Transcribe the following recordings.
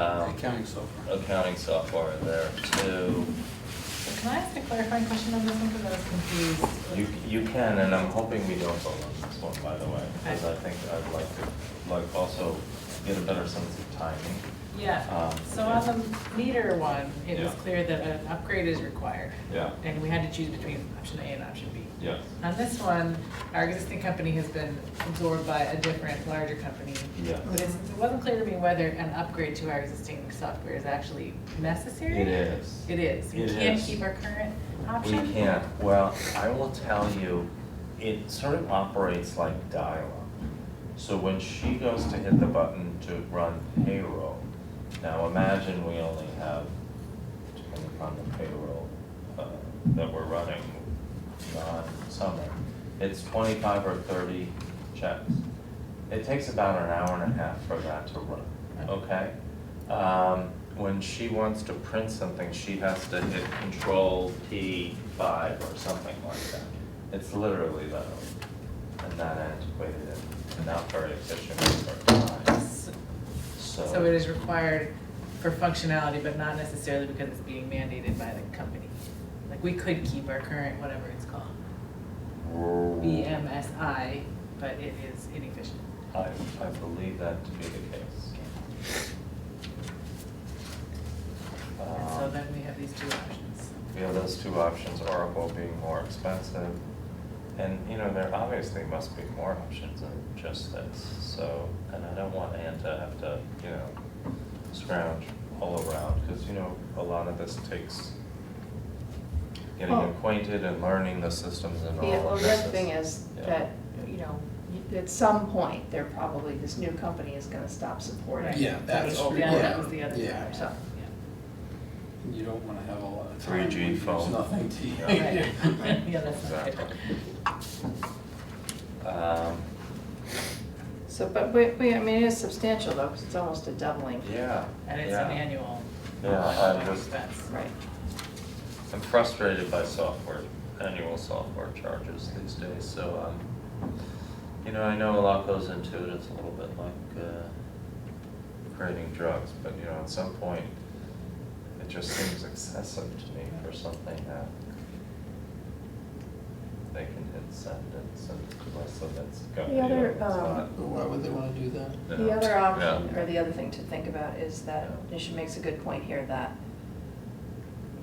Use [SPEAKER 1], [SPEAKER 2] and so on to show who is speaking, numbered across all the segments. [SPEAKER 1] Um,
[SPEAKER 2] accounting software.
[SPEAKER 1] accounting software in there too.
[SPEAKER 3] Can I ask a clarifying question on this one, because I was confused?
[SPEAKER 1] You, you can, and I'm hoping we don't go on this one, by the way, because I think I'd like to, like, also get a better sense of timing.
[SPEAKER 3] Yeah,
[SPEAKER 1] Um,
[SPEAKER 3] so on the meter one, it was
[SPEAKER 1] Yeah.
[SPEAKER 3] clear that an upgrade is required.
[SPEAKER 1] Yeah.
[SPEAKER 3] And we had to choose between option A and option B.
[SPEAKER 1] Yeah.
[SPEAKER 3] On this one, our existing company has been absorbed by a different, larger company.
[SPEAKER 1] Yeah.
[SPEAKER 3] But it's- it wasn't clear to me whether an upgrade to our existing software is actually necessary.
[SPEAKER 1] It is.
[SPEAKER 3] It is. We
[SPEAKER 1] It
[SPEAKER 3] can't
[SPEAKER 1] is.
[SPEAKER 3] keep our current
[SPEAKER 1] We
[SPEAKER 3] option?
[SPEAKER 1] can't, well, I will tell you, it sort of operates like dial-up. So when she goes to hit the button to run payroll, now imagine we only have, depending upon the payroll uh, that we're running on summer, it's twenty-five or thirty checks. It takes about an hour and a half for that to run, okay? Um, when she wants to print something, she has to hit control P five or something like that. It's literally that, old and that antiquated and not very efficient for her time,
[SPEAKER 3] So
[SPEAKER 1] so.
[SPEAKER 3] so it is required for functionality, but not necessarily because it's being mandated by the company. Like, we could keep our current, whatever it's called, BMSI, but it is inefficient.
[SPEAKER 1] I, I believe that to be the case.
[SPEAKER 3] And so
[SPEAKER 1] Um,
[SPEAKER 3] then we have these two options.
[SPEAKER 1] We have those two options, Oracle being more expensive. And, you know, there obviously must be more options than just this, so, and I don't want Ann to have to, you know, scrounge all around, because, you know, a lot of this takes getting
[SPEAKER 4] Well-
[SPEAKER 1] acquainted and learning the systems and all
[SPEAKER 4] Yeah, well,
[SPEAKER 1] of
[SPEAKER 4] the
[SPEAKER 1] this.
[SPEAKER 4] other thing is
[SPEAKER 1] yeah.
[SPEAKER 4] that, you know, y- at some point, they're probably, this new company is gonna stop supporting.
[SPEAKER 3] Right.
[SPEAKER 2] Yeah, that's-
[SPEAKER 4] the old
[SPEAKER 3] Yeah,
[SPEAKER 4] one.
[SPEAKER 3] that was the other
[SPEAKER 2] yeah.
[SPEAKER 3] part, so, yeah.
[SPEAKER 2] And You don't wanna have a lot of time.
[SPEAKER 1] 3G phone.
[SPEAKER 2] There's nothing to.
[SPEAKER 3] Right. Yeah, that's not
[SPEAKER 1] Exactly.
[SPEAKER 3] good.
[SPEAKER 1] Um,
[SPEAKER 4] So, but we, we, I mean, it is substantial though, because it's almost a doubling.
[SPEAKER 1] yeah,
[SPEAKER 3] And it's
[SPEAKER 1] yeah.
[SPEAKER 3] an annual. uh,
[SPEAKER 1] Yeah, I just-
[SPEAKER 3] expense.
[SPEAKER 4] Right.
[SPEAKER 1] I'm frustrated by software, annual software charges these days, so, um, you know, I know a lot goes into it, it's a little bit like, uh, creating drugs, but, you know, at some point, it just seems excessive to me for something that they can hit send and send it to us, so that's got
[SPEAKER 4] The
[SPEAKER 1] me,
[SPEAKER 4] other,
[SPEAKER 1] it's not-
[SPEAKER 4] um,
[SPEAKER 2] But why would they wanna do that?
[SPEAKER 4] The
[SPEAKER 1] Yeah.
[SPEAKER 4] other option,
[SPEAKER 1] Yeah.
[SPEAKER 4] or the other thing to think about is that,
[SPEAKER 1] Yeah.
[SPEAKER 4] Nisha makes a good point here, that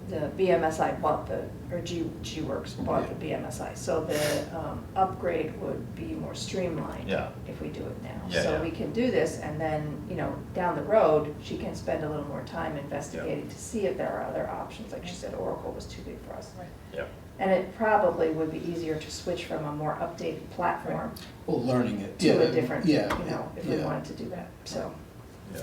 [SPEAKER 4] the BMSI bought the, or G, G-Works bought the BMSI, so the um, upgrade would be more streamlined
[SPEAKER 1] Yeah.
[SPEAKER 4] if we do it now.
[SPEAKER 1] Yeah, yeah.
[SPEAKER 4] So we can do this, and then, you know, down the road, she can spend a little more time investigating to see if there are other options, like she said, Oracle was too big for us.
[SPEAKER 3] Right.
[SPEAKER 1] Yeah,
[SPEAKER 4] And it probably would be easier to switch from a more updated platform
[SPEAKER 2] Well, learning it. yeah,
[SPEAKER 4] to a different, you
[SPEAKER 2] yeah,
[SPEAKER 4] know, if we
[SPEAKER 2] yeah.
[SPEAKER 4] wanted to do that, so.
[SPEAKER 1] yeah.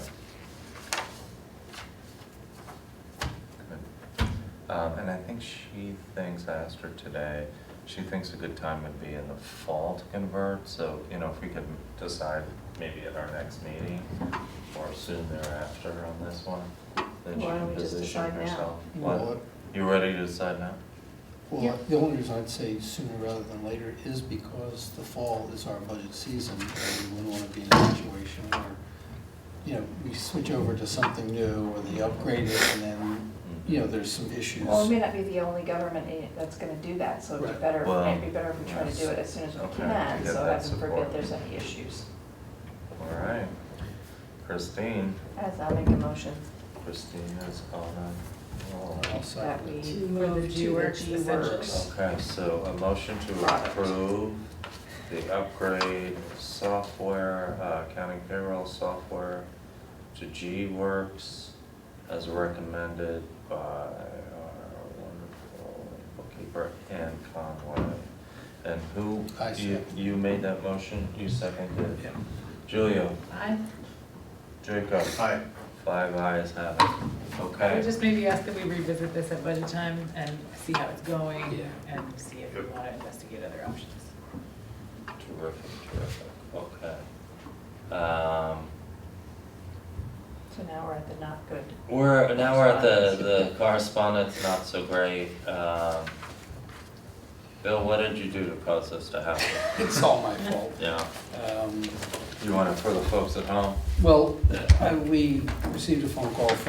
[SPEAKER 1] Good. Um, and I think she thinks, I asked her today, she thinks a good time would be in the fall to convert, so, you know, if we could decide maybe at our next meeting or soon thereafter on this one, then she
[SPEAKER 4] Why don't
[SPEAKER 1] can
[SPEAKER 4] we just
[SPEAKER 1] position
[SPEAKER 4] decide now?
[SPEAKER 1] herself.
[SPEAKER 2] Well,
[SPEAKER 1] What, you ready to decide now?
[SPEAKER 4] Yeah.
[SPEAKER 2] Well, the only reason I'd say sooner rather than later is because the fall is our budget season, and we wouldn't wanna be in a situation where, you know, we switch over to something new, or they upgrade it, and then, you know, there's some issues.
[SPEAKER 4] Well, we may not be the only government in it that's gonna do that, so it'd be
[SPEAKER 2] Right.
[SPEAKER 4] better,
[SPEAKER 1] Well,
[SPEAKER 4] it'd be better if we try to do it as soon as we
[SPEAKER 1] okay,
[SPEAKER 4] can,
[SPEAKER 1] yeah,
[SPEAKER 4] so
[SPEAKER 1] that's
[SPEAKER 4] heaven forbid
[SPEAKER 1] important.
[SPEAKER 4] there's any issues.
[SPEAKER 1] All right. Christine,
[SPEAKER 4] As I'll make a motion
[SPEAKER 1] Christine is on, all right.
[SPEAKER 2] I'll second
[SPEAKER 4] that we
[SPEAKER 2] it.
[SPEAKER 3] move
[SPEAKER 4] move
[SPEAKER 3] to
[SPEAKER 4] to
[SPEAKER 3] the
[SPEAKER 4] works
[SPEAKER 3] G
[SPEAKER 4] essentials.
[SPEAKER 3] works.
[SPEAKER 1] Okay, so a motion to
[SPEAKER 4] Product.
[SPEAKER 1] approve the upgrade of software, uh, accounting payroll software to G-Works as recommended by our wonderful bookkeeper Ann Conway. And who,
[SPEAKER 2] I
[SPEAKER 1] you,
[SPEAKER 2] second.
[SPEAKER 1] you made that motion, you seconded it?
[SPEAKER 2] Yeah.
[SPEAKER 1] Julio,
[SPEAKER 3] I
[SPEAKER 1] Jacob,
[SPEAKER 2] Aye.
[SPEAKER 1] five ayes have it,
[SPEAKER 3] I
[SPEAKER 1] okay?
[SPEAKER 3] would just maybe ask that we revisit this at budget time and see how it's going
[SPEAKER 2] Yeah.
[SPEAKER 3] and see if we want to investigate other options.
[SPEAKER 1] Terrific, terrific, okay. Um,
[SPEAKER 4] So now we're at the not good.
[SPEAKER 1] We're, now we're at the, the correspondence, not so great. Um, Bill, what did you do to cause this to happen?
[SPEAKER 2] It's all my fault.
[SPEAKER 1] Yeah,
[SPEAKER 2] Um,
[SPEAKER 1] you want it for the folks at home?
[SPEAKER 2] Well, I- we received a phone call